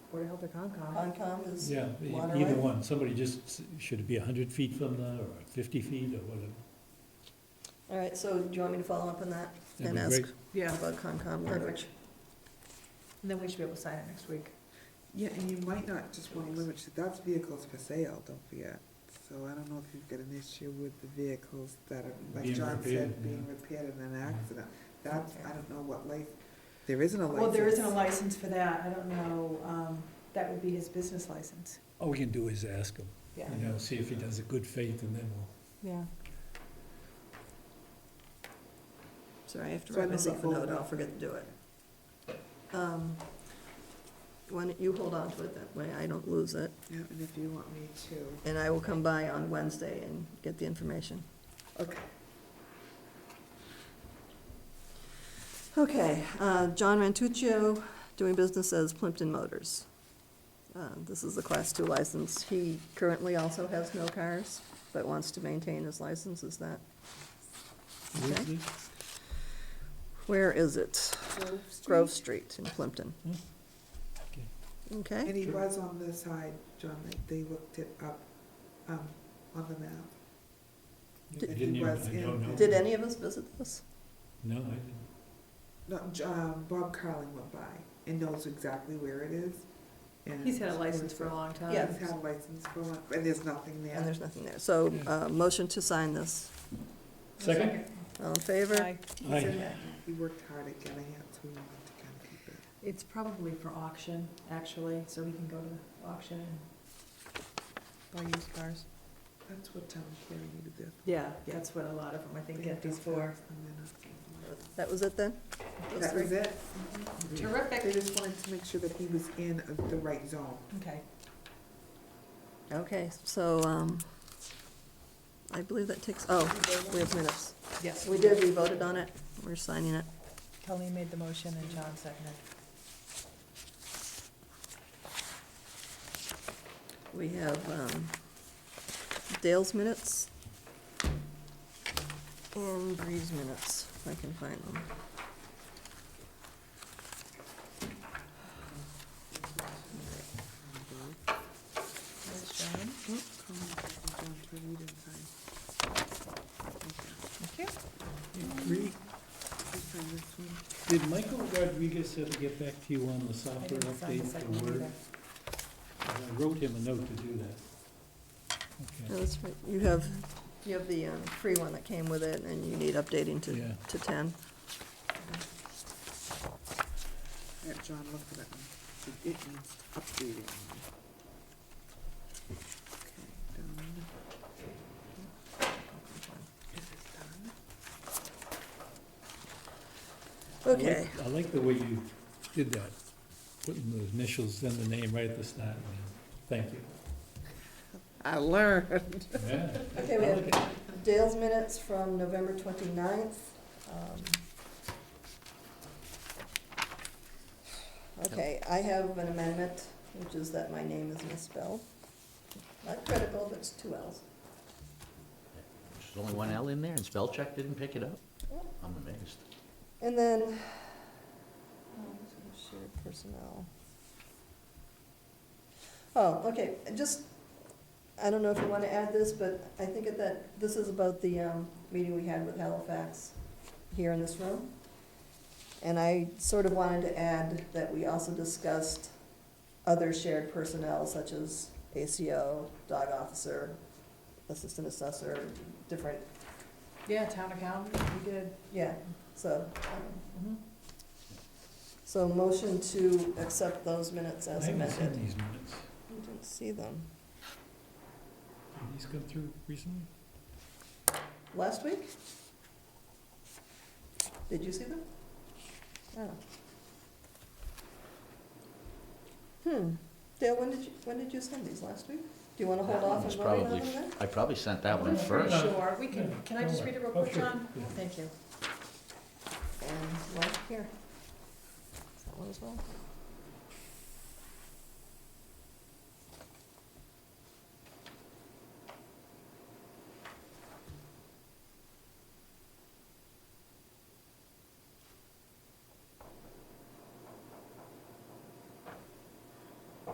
Board of Health or Concom. Concom is Yeah, e- Monterey. either one, somebody just, s- should it be hundred feet from the, or fifty feet, or whatever? All right, so do you want me to follow up on that That'd and be ask great. Yeah, about Concom language? And then we should be able to sign it next week. yeah, and you might not just wanna limit, to- that's vehicles for sale, don't forget. So I don't know if you've got an issue with the vehicles that are, like Being John said, repaired, being yeah. Mm-hmm. repaired in an accident. That's, I don't know what life, there isn't a license. Well, there isn't a license for that, I don't know, um, that would be his business license. All we can do is ask him, Yeah. you know, see if he does a good faith, and then we'll, Yeah. Sorry, I have to So I write know myself a the note, folder. I'll forget to do it. Um, Why don't you hold on to it that way, I don't lose it, Yeah, and if you want me to, and I will come by on Wednesday and get the information. okay. Okay, uh, John Rantuccio, doing business as Plimpton Motors. Uh, This is a Class Two license. He currently also has no cars, but wants to maintain his license, is that? who is Okay. this? Where is it? Grove Grove Street in Plimpton. Hmm. Okay. Okay, And he was on the side, John, like, they looked it up, um, on the map. You Did- Didn't he even, was I don't in- know. did any of us visit this? No, I didn't. No, J- um, Bob Carling went by and knows exactly where it is. and- He's had a license for a long time. Yeah. He's had a license for a long, and there's nothing And there. there's nothing there. So, uh, motion to sign this. Second? All in favor? Aye. He's Aye. in that- He worked hard at getting it, so we wanted to kind of keep it. It's probably for auction, actually, so we can go to the auction and buy used cars. That's what town clearing needed this. Yeah, that's what a lot of them, I think, get these for. That was it then? Those That three? was it. Mm-hmm. They Terrific. just wanted to make sure that he was in the right zone. Okay. Okay, so, um, I believe that takes, oh, we have minutes. Yes. We did, we voted on it, we're signing it. Colleen made the motion and John seconded. We have um, Dale's minutes and Bree's minutes, if I can find them. There's John. Re- Did Michael Rodriguez ever get back to you on the I software didn't sign the update second one for Word? either. I wrote him a note to do that. No, Okay, that's right, you have, you have the um, free one that came with it, and you need updating to, Yeah. to ten. Yeah, John looked at it, and it it needs updating. Okay, done. This is done. I like- Okay, I like the way you did that, putting the initials, then the name right at the start. and then- Thank you. I learned. Yeah. okay, we have Dale's minutes from November twenty-ninth. um, Okay, I have an amendment, which is that my name is misspelled. Not critical, but it's two L's. There's only one L in there, and spell check didn't pick it up? I'm amazed. And then, oh, um, shared personnel. Oh, okay, just, I don't know if you wanna add this, but I think at that, this is about the, um, meeting we had with Halifax here in this room. And I sort of wanted to add that we also discussed other shared personnel such as ACO, dog officer, assistant assessor, different, Yeah, town accountant, we did. yeah, so, um, Mhm. So motion to accept those minutes I as haven't seen amended. these minutes. I didn't see them. Did these come through recently? Last week? Did you see them? Oh. Hmm. Dale, when did you, when did you send these? Last week? Do you want to hold That one off and was vote on them probably- then? I probably sent that one I'm pretty first. Sure, we can, Yeah, can I just don't read it real worry. quick, Oh, sure. John? Yeah. Thank you. And one here. Is that one as well?